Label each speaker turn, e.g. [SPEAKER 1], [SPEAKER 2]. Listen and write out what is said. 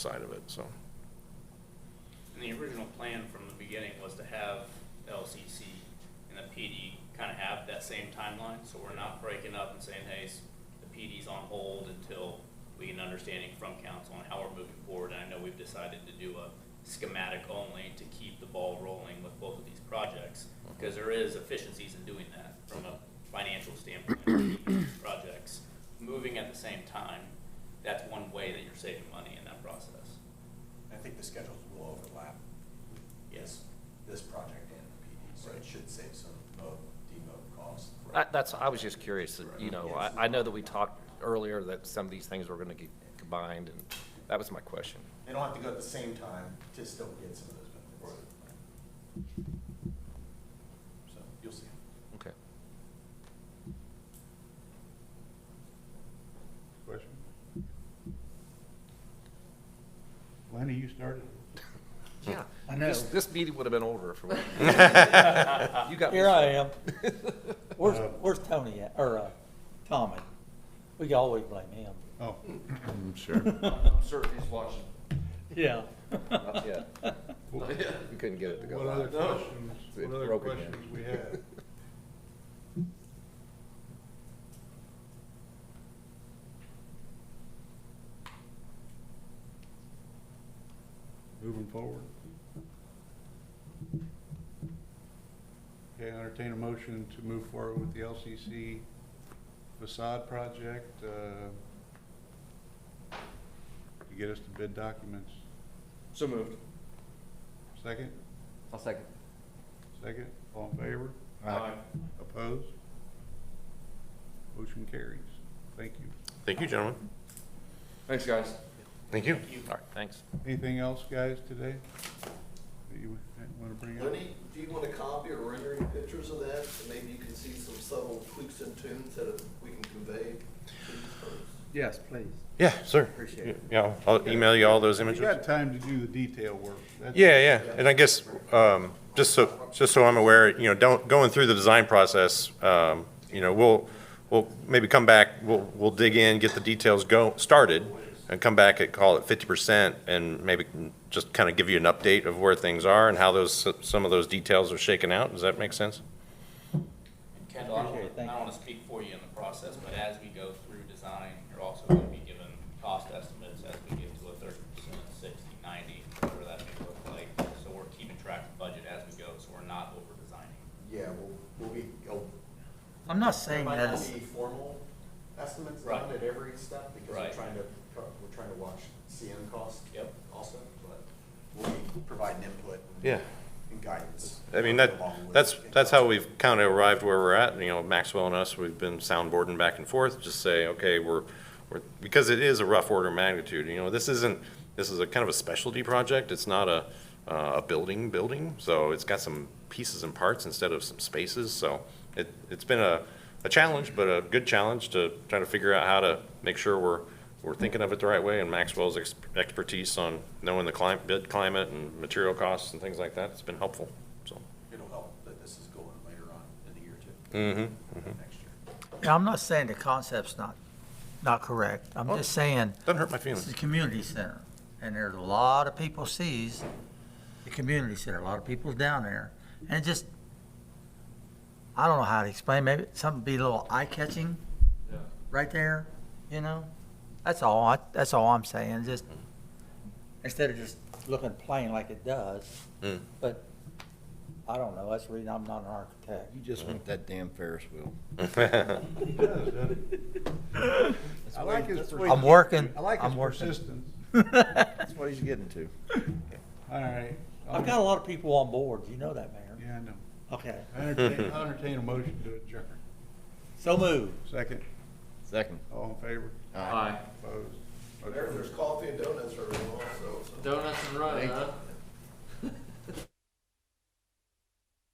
[SPEAKER 1] side of it, so.
[SPEAKER 2] And the original plan from the beginning was to have LCC and the PD kind of have that same timeline, so we're not breaking up and saying, hey, s- the PD's on hold until we get an understanding from council on how we're moving forward. And I know we've decided to do a schematic only to keep the ball rolling with both of these projects, because there is efficiencies in doing that from a financial standpoint, keeping these projects moving at the same time. That's one way that you're saving money in that process.
[SPEAKER 3] I think the schedules will overlap.
[SPEAKER 2] Yes.
[SPEAKER 3] This project and the PD, so it should save some mode, demote costs. for-
[SPEAKER 4] I- Uh, That's, I was just curious, that, you know, I, I know that we talked earlier that some of these things were gonna get combined, and that was my question.
[SPEAKER 3] They don't have to go at the same time to still get some of those benefits. So, you'll see.
[SPEAKER 4] Okay.
[SPEAKER 5] Question? Lenny, you started.
[SPEAKER 4] Yeah.
[SPEAKER 6] I know.
[SPEAKER 4] This- This meeting would have been over if it weren't. You got me.
[SPEAKER 6] Here I am. Where's,
[SPEAKER 5] Uh,
[SPEAKER 6] where's Tony at, or, uh, Tommy? We can always blame him.
[SPEAKER 5] Oh,
[SPEAKER 7] Certainly is watching.
[SPEAKER 6] Yeah.
[SPEAKER 4] Not yet. You couldn't get it to go.
[SPEAKER 5] what other
[SPEAKER 4] live.
[SPEAKER 5] questions,
[SPEAKER 4] It's
[SPEAKER 5] what other
[SPEAKER 4] broken yet.
[SPEAKER 5] questions we have? Moving forward. Okay, I entertain a motion to move forward with the LCC facade project, uh, to get us to bid documents.
[SPEAKER 7] So moved.
[SPEAKER 5] Second?
[SPEAKER 7] I'll second.
[SPEAKER 5] Second, all in favor?
[SPEAKER 7] Aye.
[SPEAKER 5] Opposed? Motion carries. Thank you.
[SPEAKER 1] Thank you, gentlemen.
[SPEAKER 7] Thanks, guys.
[SPEAKER 1] Thank you.
[SPEAKER 4] All right, thanks.
[SPEAKER 5] Anything else, guys, today? That you want to bring up?
[SPEAKER 8] Lenny, do you want a copy or rendering pictures of that? And maybe you can see some subtle tweaks and tunes that we can convey to these folks.
[SPEAKER 6] Yes, please.
[SPEAKER 1] Yeah, sir.
[SPEAKER 6] Appreciate it.
[SPEAKER 1] Yeah, I'll email you all those
[SPEAKER 5] You
[SPEAKER 1] images.
[SPEAKER 5] got time to do the detail work. That's-
[SPEAKER 1] Yeah, yeah, and I guess, um, just so, just so I'm aware, you know, don't, going through the design process, um, you know, we'll, we'll maybe come back, we'll, we'll dig in, get the details go, started, and come back and call it fifty percent, and maybe just kind of give you an update of where things are and how those, some of those details are shaken out, does that make sense?
[SPEAKER 2] And Kendall, I don't wanna-
[SPEAKER 6] Appreciate it.
[SPEAKER 2] I
[SPEAKER 6] Thank
[SPEAKER 2] don't
[SPEAKER 6] you.
[SPEAKER 2] want to speak for you in the process, but as we go through design, you're also going to be given cost estimates as we get to a thirty percent, sixty, ninety, whatever that may look like. So we're keeping track of budget as we go, so we're not over designing.
[SPEAKER 8] Yeah, we'll, we'll be, oh,
[SPEAKER 6] I'm not saying
[SPEAKER 8] it might
[SPEAKER 6] that
[SPEAKER 8] not
[SPEAKER 6] it's,
[SPEAKER 8] be formal estimates
[SPEAKER 2] Right.
[SPEAKER 8] done at every step because
[SPEAKER 2] Right.
[SPEAKER 8] we're trying to, we're trying to watch CM costs.
[SPEAKER 2] Yep.
[SPEAKER 8] Also, but we'll be providing input. and-
[SPEAKER 1] Yeah.
[SPEAKER 8] And guidance.
[SPEAKER 1] I mean,
[SPEAKER 8] along
[SPEAKER 1] that,
[SPEAKER 8] with-
[SPEAKER 1] that's, that's how we've kind of arrived where we're at, you know, Maxwell and us, we've been soundboarding back and forth, just say, okay, we're, we're, because it is a rough order of magnitude, you know, this isn't, this is a kind of a specialty project, it's not a, uh, a building, building, so it's got some pieces and parts instead of some spaces, so it, it's been a, a challenge, but a good challenge to try to figure out how to make sure we're, we're thinking of it the right way, and Maxwell's ex- expertise on knowing the climate, bid climate and material costs and things like that, it's been helpful, so.
[SPEAKER 8] It'll help that this is going later on in the year too,
[SPEAKER 1] Mm-hmm.
[SPEAKER 8] next year.
[SPEAKER 6] Now, I'm not saying the concept's not, not correct. I'm
[SPEAKER 1] Oh.
[SPEAKER 6] just saying,
[SPEAKER 1] Doesn't hurt my
[SPEAKER 6] this is
[SPEAKER 1] feelings.
[SPEAKER 6] a community center, and there's a lot of people sees the community center, a lot of people's down there. And it just, I don't know how to explain, maybe something be a little eye-catching
[SPEAKER 7] Yeah.
[SPEAKER 6] right there, you know? That's all, I- that's all I'm saying, just, instead of just looking plain like it does,
[SPEAKER 1] Mm.
[SPEAKER 6] but I don't know, that's the reason I'm not an architect.
[SPEAKER 7] You just want that damn Ferris wheel.
[SPEAKER 1] Mm.
[SPEAKER 5] He does, doesn't he? I like his.
[SPEAKER 7] that's what-
[SPEAKER 5] persistence.
[SPEAKER 6] I'm working,
[SPEAKER 5] I like his
[SPEAKER 6] I'm working.
[SPEAKER 5] persistence.
[SPEAKER 7] That's what he's getting to.
[SPEAKER 5] All right.
[SPEAKER 6] I've got a lot of people on board, you know that, Mayor.
[SPEAKER 5] Yeah, I know.
[SPEAKER 6] Okay,
[SPEAKER 5] I entertain, I entertain a motion to adjourn.
[SPEAKER 6] so moved.
[SPEAKER 5] Second,
[SPEAKER 7] Second.
[SPEAKER 5] all in favor?
[SPEAKER 7] Aye.
[SPEAKER 5] Opposed?
[SPEAKER 8] There-
[SPEAKER 5] Motion
[SPEAKER 8] There's coffee and donuts for everyone also, so.
[SPEAKER 7] Donuts and run, huh?